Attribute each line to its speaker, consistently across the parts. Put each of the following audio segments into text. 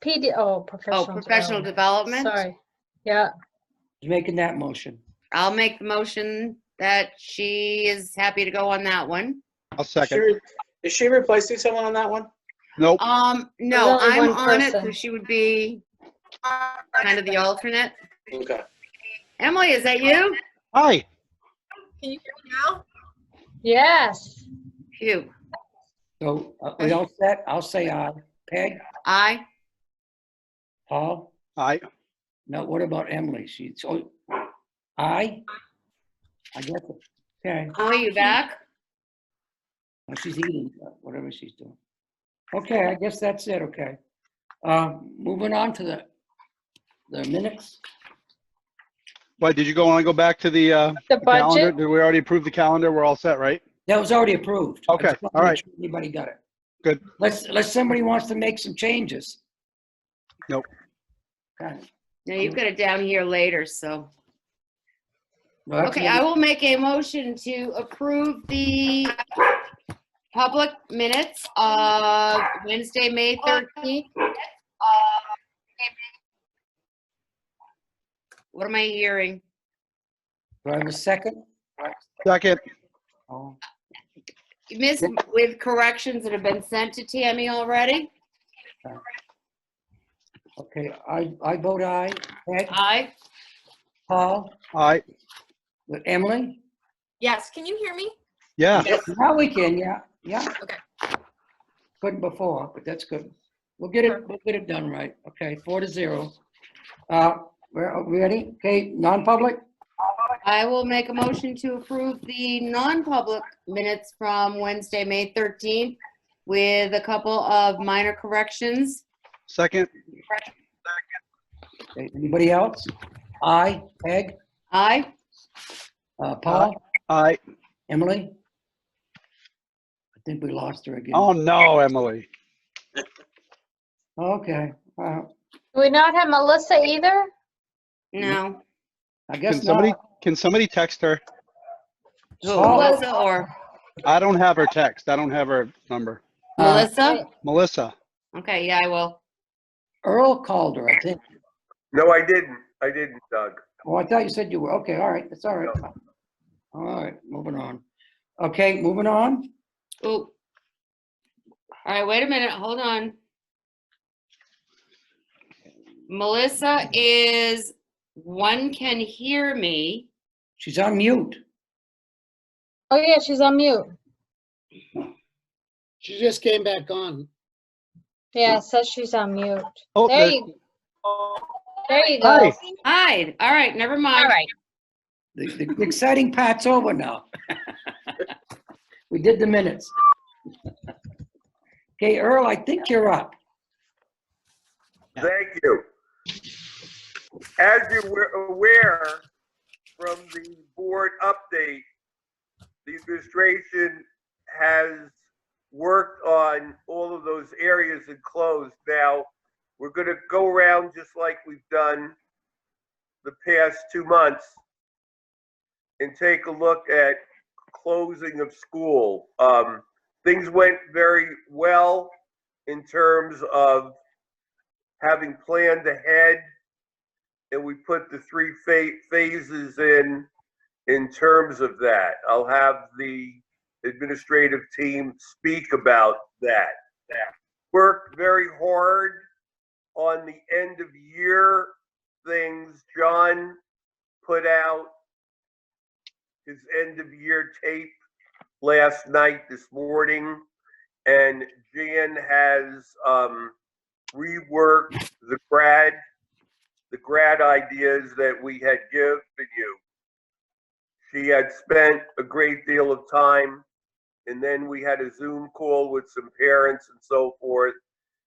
Speaker 1: PD, oh, professional.
Speaker 2: Oh, professional development.
Speaker 1: Sorry. Yeah,
Speaker 3: Who's making that motion?
Speaker 2: I'll make the motion that she is happy to go on that one.
Speaker 4: I'll
Speaker 5: Is she
Speaker 4: second.
Speaker 5: re- Is she replacing someone on that one?
Speaker 4: Nope,
Speaker 2: Um, no,
Speaker 1: There's only
Speaker 2: I'm
Speaker 1: one
Speaker 2: on it, so
Speaker 1: person.
Speaker 2: she would be kind of the alternate.
Speaker 5: Okay.
Speaker 2: Emily, is that you?
Speaker 4: aye.
Speaker 6: Can you hear me now?
Speaker 1: yes.
Speaker 2: Phew,
Speaker 3: So uh, we all set? I'll say aye. Peg?
Speaker 2: aye.
Speaker 3: Paul?
Speaker 4: Aye,
Speaker 3: No, what about Emily? She's, oh, aye? I guess, okay.
Speaker 2: Emily, you back?
Speaker 3: Well, She's eating, uh, whatever she's doing. Okay, I guess that's it, okay. Uh, Moving on to the, the minutes.
Speaker 4: Why, did you go, want to go back to the uh,
Speaker 1: The
Speaker 4: calendar?
Speaker 1: budget,
Speaker 4: Did we already approve the calendar? We're all set, right?
Speaker 3: That was already approved. I
Speaker 4: Okay,
Speaker 3: just wanted to
Speaker 4: all
Speaker 3: make
Speaker 4: right.
Speaker 3: sure Anybody got it?
Speaker 4: Good.
Speaker 3: Unless, unless somebody wants to make some changes.
Speaker 4: Nope.
Speaker 3: Okay.
Speaker 2: No, you've got it down here later, so.
Speaker 3: Well, that's
Speaker 2: Okay,
Speaker 3: it.
Speaker 2: I will make a motion to approve the public minutes of Wednesday, May 13th. What am I hearing?
Speaker 3: Do I have a second?
Speaker 4: Second,
Speaker 3: Oh,
Speaker 2: Miss, with corrections that have been sent to Tammy already?
Speaker 3: Okay, I, I vote aye. Peg,
Speaker 2: Aye.
Speaker 3: Paul,
Speaker 4: aye,
Speaker 3: Emily?
Speaker 6: Yes, can you hear me?
Speaker 4: yeah.
Speaker 3: Now we can, yeah, yeah.
Speaker 6: Okay.
Speaker 3: Couldn't before, but that's good. We'll get it, we'll get it done right. Okay, four to zero. Uh, we're, are we ready? Okay, non-public?
Speaker 2: I will make a motion to approve the non-public minutes from Wednesday, May 13th with a couple of minor corrections.
Speaker 4: Second,
Speaker 3: Okay, Anybody else? Aye, Peg,
Speaker 2: Aye.
Speaker 3: uh, Paul,
Speaker 4: aye.
Speaker 3: Emily? I think we lost her again.
Speaker 4: Oh, no, Emily.
Speaker 3: Okay, uh,
Speaker 1: do we not have Melissa either?
Speaker 2: No.
Speaker 3: I
Speaker 4: Can
Speaker 3: guess
Speaker 4: somebody,
Speaker 3: not.
Speaker 4: can somebody text her?
Speaker 3: Paul,
Speaker 4: Oh.
Speaker 2: Melissa or
Speaker 4: I don't have her text. I don't have her number.
Speaker 3: uh,
Speaker 2: Melissa?
Speaker 4: Melissa,
Speaker 2: Okay, yeah, I will.
Speaker 3: Earl called her, I think.
Speaker 7: No, I didn't. I didn't, Doug.
Speaker 3: Oh, I thought you said you were. Okay, all right, that's all right. All right, moving on. Okay, moving on.
Speaker 2: Ooh. All right, wait a minute, hold on. Melissa is, one can hear me.
Speaker 3: She's on mute.
Speaker 1: Oh, yeah, she's on mute.
Speaker 8: She just came back on.
Speaker 1: Yeah, it says she's on mute.
Speaker 4: oh,
Speaker 1: There
Speaker 4: there-
Speaker 1: you, there you
Speaker 4: Hi.
Speaker 1: go.
Speaker 2: Hi, all right, never mind. All right.
Speaker 3: The, the exciting part's over now. We did the minutes. Okay, Earl, I think you're up.
Speaker 7: Thank you. As you were aware from the board update, the administration has worked on all of those areas and closed. Now, we're going to go around just like we've done the past two months and take a look at closing of school. Um, Things went very well in terms of having planned ahead, and we put the three pha- phases in, in terms of that. I'll have the administrative team speak about that. Worked very hard on the end of year things. John put out his end of year tape last night, this morning, and Jan has, um, rework the grad, the grad ideas that we had given you. She had spent a great deal of time, and then we had a Zoom call with some parents and so forth,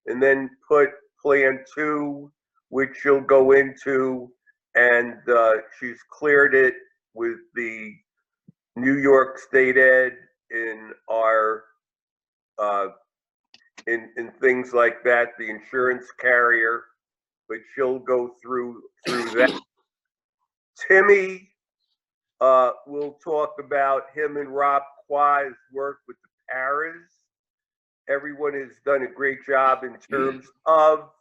Speaker 7: and then put Plan Two, which she'll go into, and uh, she's cleared it with the New York State Ed in our uh, in, in things like that, the insurance carrier, but she'll go through, through that. Timmy, uh, we'll talk about him and Rob Quai's work with the Paras. Everyone has done a great job in terms of